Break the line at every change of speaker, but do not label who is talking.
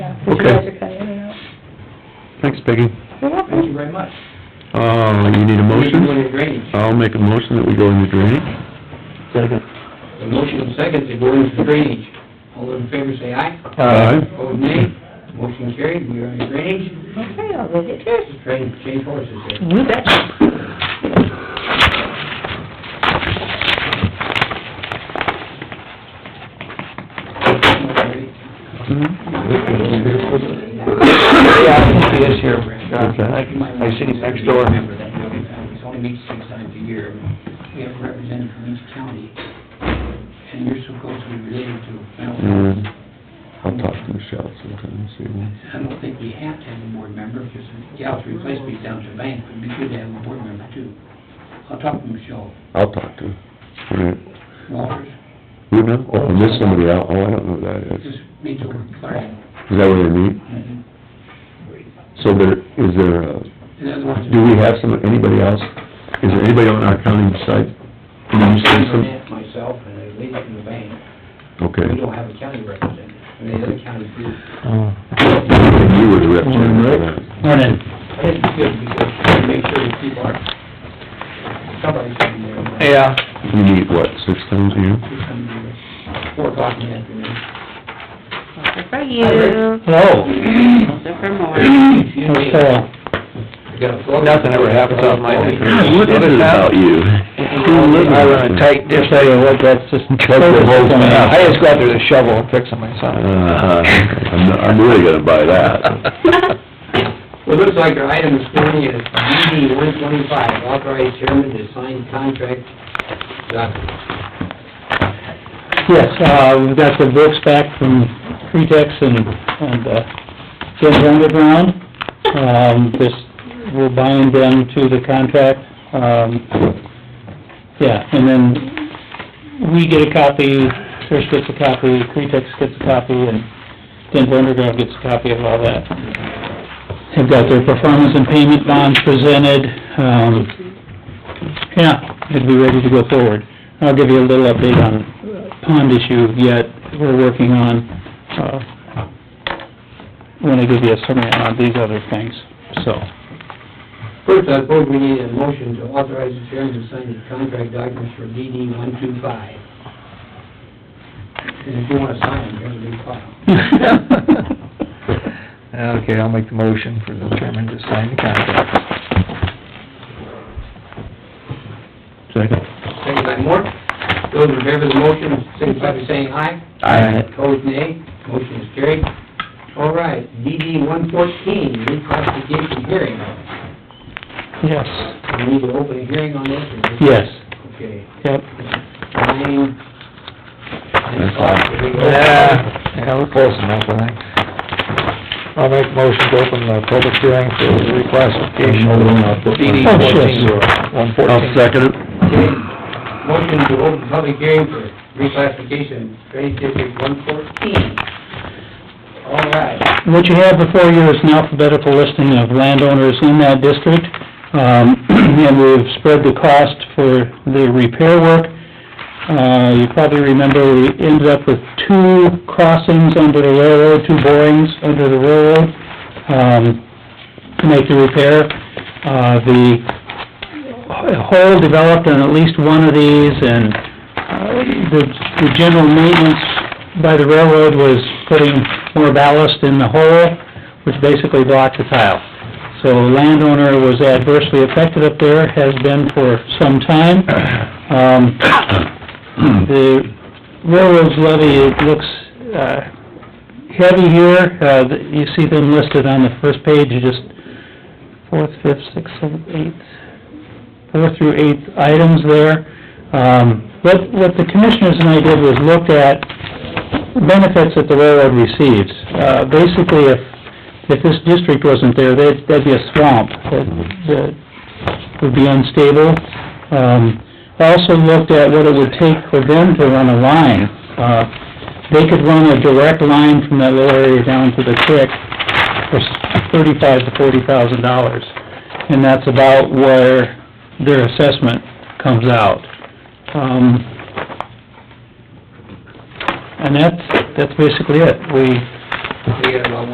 you guys
Okay,
are kinda in and out.
thanks Peggy.
You're
Thank you
welcome.
very much.
Uh, you need a
We're going
motion?
to drainage.
I'll make a motion that we go into drainage.
Second.
The motion and second to go into drainage. All those in favor say aye.
Aye.
Opposed, nay. Motion carried, we are in drainage.
Okay, I'll leave it there.
Just trying to change horses here.
You bet.
Yeah, I can see us here, John, I can, I see him next door.
Remember that, we only meet six times a year. We have a representative from each county, and you're supposed to be related to.
And I'll talk to Michelle sometime, see what...
I don't think we have to have a board member, because Gal's replacement is down to bank, but it'd be good to have a board member too. I'll talk to Michelle
I'll talk to her. All right.
Walters,
Who now? Oh, and there's somebody out, oh, I don't know who that is.
just meet over Clark.
Is that where they meet?
And
So there, is there, uh,
the other one's.
do we have some, anybody else? Is there anybody on our county side? Can you say some?
Myself and a lady from the bank, we
Okay.
don't have a county representative, and the other county group.
You were the rep. Morning.
I think it's good, because we make sure that people are, somebody's in there.
Yeah.
You meet, what, six times a year?
Who's coming here? Four o'clock in the afternoon.
Those are for you,
Hello.
those are for more.
Excuse me, I got a flow.
Nothing ever happens on my
God, what is it about you?
I run a tight dish, I don't know what that's just. I just go out there to shovel and fix it myself.
Uh-huh. I'm, I'm really gonna buy that.
Well, it looks like our item this morning is DD one twenty-five, authorized chairman to sign contract documents.
Yes, uh, we've got the books back from Cretex and, and, uh, Jim's Underground. Um, this, will bind them to the contract, um, yeah, and then we get a copy, Trish gets a copy, Cretex gets a copy, and Denver Underground gets a copy of all that. They've got their performance and payment bonds presented, um, yeah, it'd be ready to go forward. I'll give you a little update on pond issue yet, we're working on, uh, when I give you a summary on these other things, so.
First, I suppose we need a motion to authorize the chairman to sign the contract documents for DD one two five. And if you wanna sign them, here's a big file.
Okay, I'll make the motion for the chairman to sign the contract.
Second.
Second by Mort, those in favor of the motion, signify by saying aye.
Aye.
Opposed, nay. Motion is carried. All right, DD one fourteen, reclassification hearing.
Yes.
We need to open a hearing on this or just-
Yes,
Okay.
yep.
Nine.
That's fine.
Yeah, yeah, we're close enough, I think. I'll make the motion to open the public hearing for the reclassification of the DD
Oh,
fourteen.
sure.
One
I'll second it.
Okay. Motion to open public hearing for reclassification, Drainage District one fourteen. All right.
What you have before you is an alphabetical listing of landowners in that district, um, and we've spread the cost for the repair work. Uh, you probably remember, we ended up with two crossings under the railroad, two borings under the railroad, um, to make the repair. Uh, the hole developed on at least one of these, and uh, the, the general maintenance by the railroad was putting more ballast in the hole, which basically blocked the tile. So the landowner was adversely affected up there, has been for some time. Um, the railroad's levy, it looks, uh, heavy here, uh, the- you see them listed on the first page, you just fourth, fifth, sixth, seventh, eighth, four through eight items there. Um, what, what the commissioners and I did was looked at benefits that the railroad receives. Uh, basically, if, if this district wasn't there, there'd, there'd be a swamp that, that would be unstable. Um, also looked at what it would take for them to run a line. Uh, they could run a direct line from that little area down to the creek for thirty-five to forty thousand dollars. And that's about where their assessment comes out. Um, and that's, that's basically it. We,
We got about